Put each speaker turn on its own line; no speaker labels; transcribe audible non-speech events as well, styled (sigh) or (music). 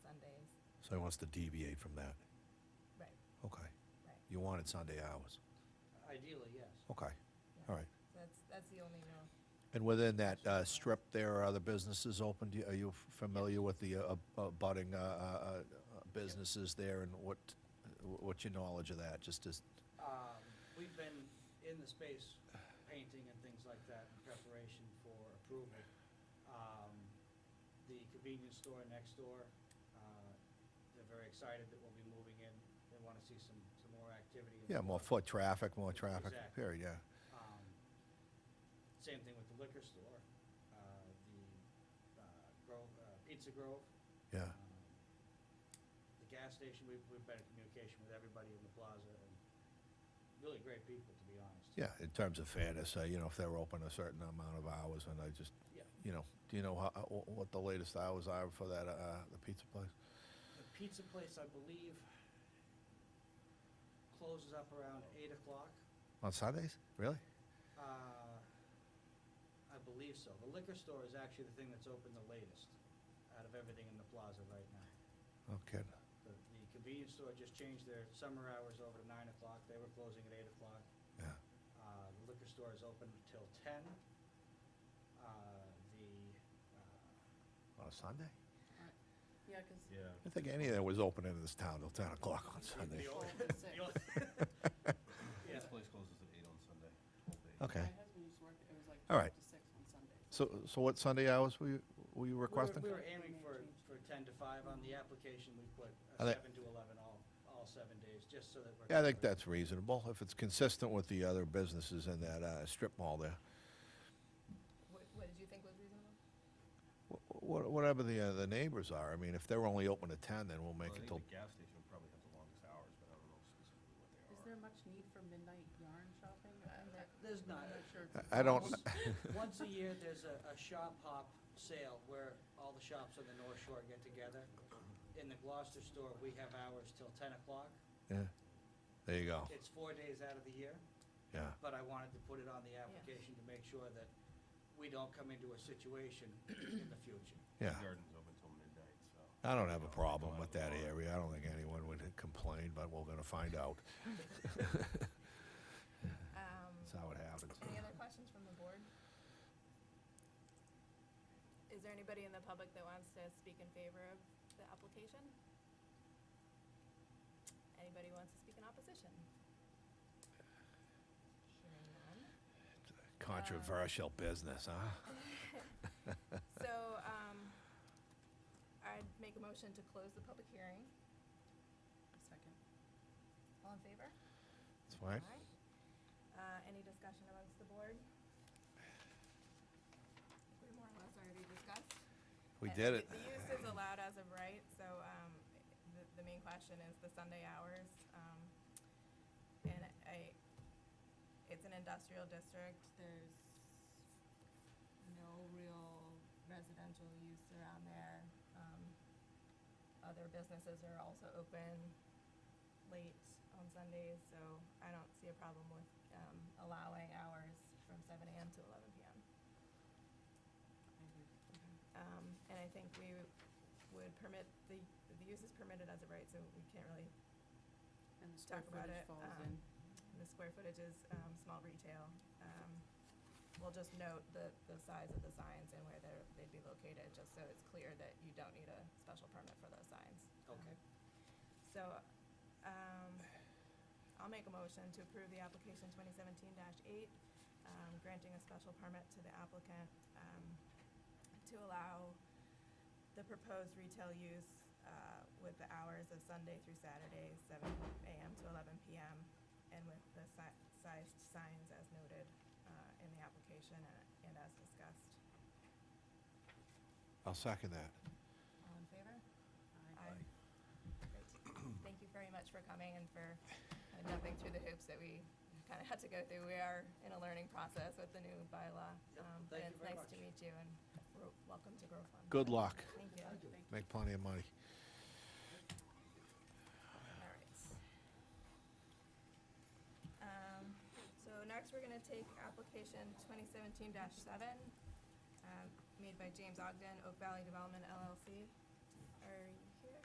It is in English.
So he wants to deviate from that.
Right,
Okay.
right.
You wanted Sunday hours.
Ideally, yes.
Okay.
yeah.
All right.
That's, that's the only no.
And within that uh, strip there, are other businesses open? Do you- Are you f- familiar with the uh, uh, budding uh, uh, uh, businesses there and what, uh, what's your knowledge of that? Just as,
Um, We've been in the space painting and things like that in preparation for approval. Um, The convenience store next door, uh, they're very excited that we'll be moving in. They want to see some, some more activity. in the
yeah, more
park.
foot traffic, more traffic,
Exactly.
period, yeah.
Um, Same thing with the liquor store, uh, the uh, Grove, uh, Pizza Grove.
Yeah.
um, The gas station, we've, we've been in communication with everybody in the plaza, and really great people, to be honest.
Yeah, in terms of fairness, uh, you know, if they're open a certain amount of hours and I just,
Yeah.
you know, do you know how, uh, wh- what the latest hours are for that, uh, the pizza place?
The pizza place, I believe, closes up around eight o'clock.
On Sundays? Really?
Uh, I believe so. The liquor store is actually the thing that's open the latest out of everything in the plaza right now.
No Oh, kidding.
The, the convenience store just changed their summer hours over to nine o'clock. They were closing at eight o'clock.
Yeah.
Uh, the liquor store is open till ten. Uh, the, uh,
On a Sunday?
Yeah, because.
Yeah.
I think any of that was open in this town till ten o'clock on Sunday. (laughs)
the old-
Four to six.
the old- Yeah.
This place closes at eight on Sunday, twelve days.
Okay.
My husband used to work, it was like
All right.
twelve to six on Sundays.
So, so what Sunday hours were you, were you
We were-
requesting?
We were aiming for, for ten to five on the application. We put uh,
I think-
seven to eleven all, all seven days, just so that we're.
Yeah, I think that's reasonable, if it's consistent with the other businesses in that, uh, strip mall there.
What, what did you think was reasonable?
Wh- wh- Whatever the, uh, the neighbors are, I mean, if they're only open at ten, then we'll
Well, I
make it
think
till,
the gas station will probably have the longest hours, but I don't know specifically what they are.
Is there much need for midnight yarn shopping? I'm not-
There's not.
I'm not sure.
I I don't, (laughs)
Once a year, there's a, a shop hop sale where all the shops on the North Shore get together. In the Gloucester store, we have hours till ten o'clock.
yeah, there you go,
It's four days out of the year.
Oh. yeah.
But I wanted to put it on the application to make sure that we don't come into a situation in the future.
Yeah.
The garden's open till midnight, so.
I don't have a problem with that area. I don't think anyone would complain, but we're gonna find out. (laughs) Uh,
Um,
That's how it happens.
Any other questions from the board? Is there anybody in the public that wants to speak in favor of the application? Anybody who wants to speak in opposition?
(laughs)
Hearing none.
Controversial business, huh?
(laughs) So, um, I'd make a motion to close the public hearing.
Second.
All in favor?
It's fine.
Aye. Uh, any discussion amongst the board? We more or less already discussed.
We
Uh,
did it.
The use is allowed as of right, so, um, the, the main question is the Sunday hours. Um, and I, it's an industrial district, there's no real residential use around there. Um, other businesses are also open late on Sundays, so I don't see a problem with, um, allowing hours from seven AM to eleven PM.
I agree. Okay.
Um, and I think we would permit, the, the use is permitted as a right, so we can't really,
And the square
Talk about it,
footage falls
um,
in.
the square footage is, um, small retail. Um, We'll just note the, the size of the signs and where they're, they'd be located, just so it's clear that you don't need a special permit for those signs.
Okay.
So, um, I'll make a motion to approve the application twenty seventeen eight, um, granting a special permit to the applicant, um, to allow the proposed retail use, uh, with the hours of Sunday through Saturday, seven AM to eleven PM, and with the si- sized signs as noted, uh, in the application and- and as discussed.
I'll second that.
All in favor?
I-
Aye. Great. Thank you very much for coming and for uh, jumping through the hoops that we kind of had to go through. We are in a learning process with the new bylaw.
Yep,
um,
thank
and
you very
It's nice to
much.
meet you and we're- welcome to Groveland.
Good luck.
Thank you.
Thank you.
Make plenty of money.
All right. Um, So next, we're going to take application 2017-7, um, made by James Ogden, Oak Valley Development LLC. Are